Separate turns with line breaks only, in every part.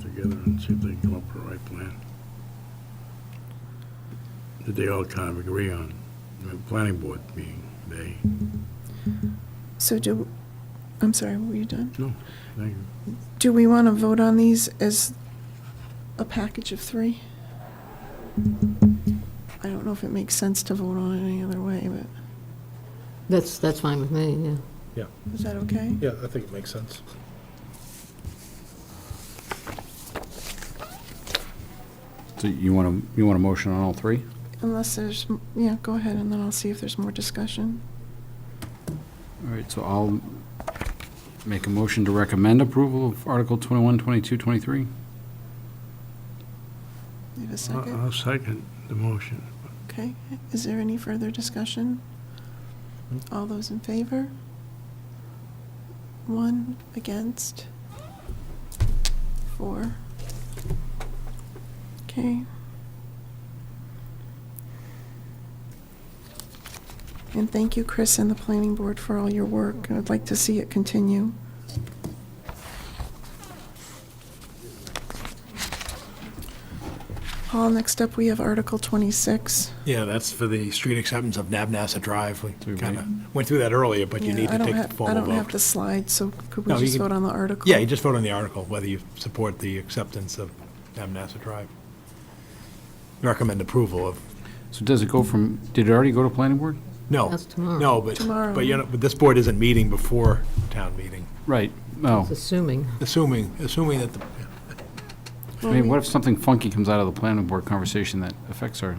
together and see if they come up with the right plan. That they all kind of agree on, the planning board being they.
So do, I'm sorry, were you done?
No, thank you.
Do we want to vote on these as a package of three? I don't know if it makes sense to vote on it any other way, but
That's, that's fine with me, yeah.
is that okay?
Yeah, I think it makes sense.
So you want to, you want a motion on all three?
Unless there's, m- yeah, go ahead, and then I'll see if there's more discussion.
All right, so I'll make a motion to recommend approval of Article 21, 22, 23.
You have a
I'll-
second?
I'll second the motion.
Okay. Is there any further discussion? All those in favor? One against? Four? Okay. And thank you, Chris and the planning board, for all your work. I'd like to see it continue. Paul, next up, we have Article 26.
Yeah, that's for the street acceptance of Nabnasa Drive.
Do
We
we
kind of went through that earlier, but you
Yeah,
need
I
to
don't
take the
have- I
formal
don't have the
vote.
slide, so could we
No, you
just
can-
vote on the article?
Yeah, you just vote on the article, whether you support the acceptance of Nabnasa Drive. Recommend approval of,
So does it go from, did it already go to planning board?
no.
That's tomorrow.
No, but,
Tomorrow.
but you know, but this board isn't meeting before town meeting,
Right, no.
Assuming.
assuming, assuming that the,
I mean, what if something funky comes out of the planning board conversation that affects our,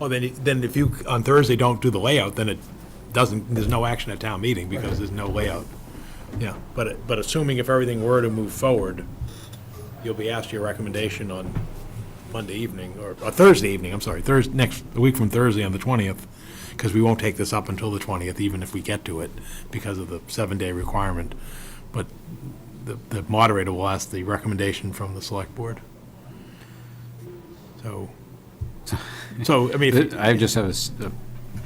oh, then, it- then if you, on Thursday, don't do the layout, then it doesn't, there's no action at town meeting because there's no layout. Yeah, but, it- but assuming if everything were to move forward, you'll be asked your recommendation on Monday evening, or or Thursday evening, I'm sorry, Thursday, next, a week from Thursday on the 20th, because we won't take this up until the 20th, even if we get to it, because of the seven-day requirement. But the the moderator will ask the recommendation from the select board. So, so, I mean, if-
I just have a s-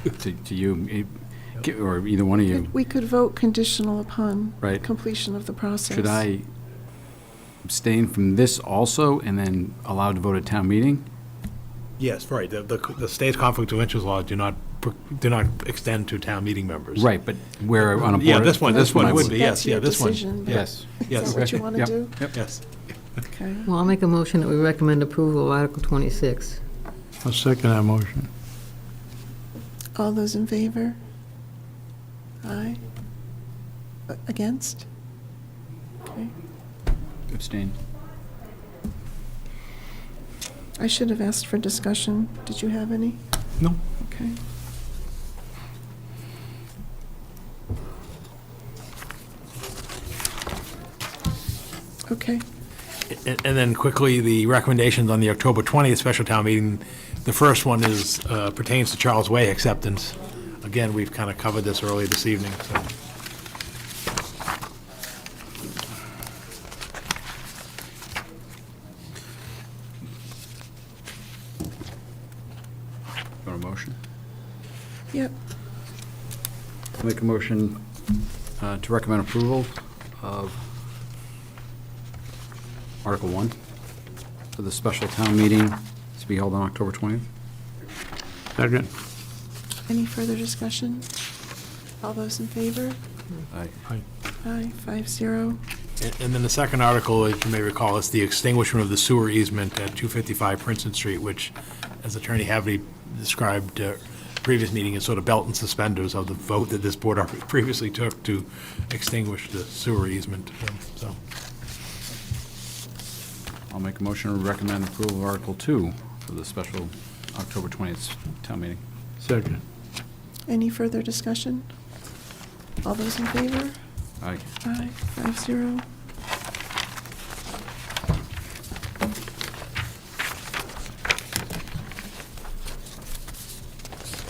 a, to to you, eh, or either one of you,
We could vote conditional upon
Right.
completion of the process.
should I abstain from this also and then allowed to vote at town meeting?
yes, right, the, the the state's conflict of interest laws do not, pr- do not extend to town meeting members.
Right, but where on a board.
Yeah, this one- this one
I
would
would.
be.
That's
yes, yeah,
your
this one.
decision, but
Yes.
Is
Yes.
that what you want to
Yep,
do?
Yep.
Yes.
Okay.
Well, I'll make a motion that we recommend approval of Article 26.
I'll second that motion.
All those in favor? Aye. A- Against? Okay.
Abstain.
I should have asked for discussion. Did you have any?
No.
Okay. Okay.
And and then quickly, the recommendations on the October 20th special town meeting. The first one is, uh, pertains to Charles Way acceptance. Again, we've kind of covered this earlier this evening, so.
Want a motion?
Yep.
Make a motion uh, to recommend approval of Article 1 for the special town meeting to be held on October 20th.
Second.
Any further discussion? All those in favor?
Aye.
Aye, five zero.
And- And then the second article, as you may recall, is the extinguishment of the sewer easement at 255 Princeton Street, which, as Attorney Haverty described uh, previous meeting, is sort of belt and suspenders of the vote that this board already previously took to extinguish the sewer easement, um, so.
I'll make a motion to recommend approval of Article 2 for the special October 20th town meeting.
Second.
Any further discussion? All those in favor?
Aye.
Aye, five zero.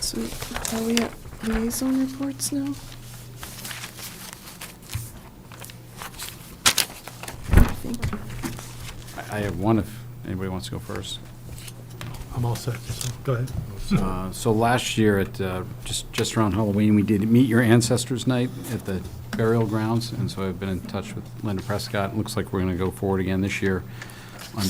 So are we at liaison reports now? I think
I- I have one if anybody wants to go first.
I'm all set, so go ahead.
Uh, So last year at, uh, just, just around Halloween, we did Meet Your Ancestors Night at the burial grounds, and so I've been in touch with Linda Prescott. It Looks like we're going to go forward again this year.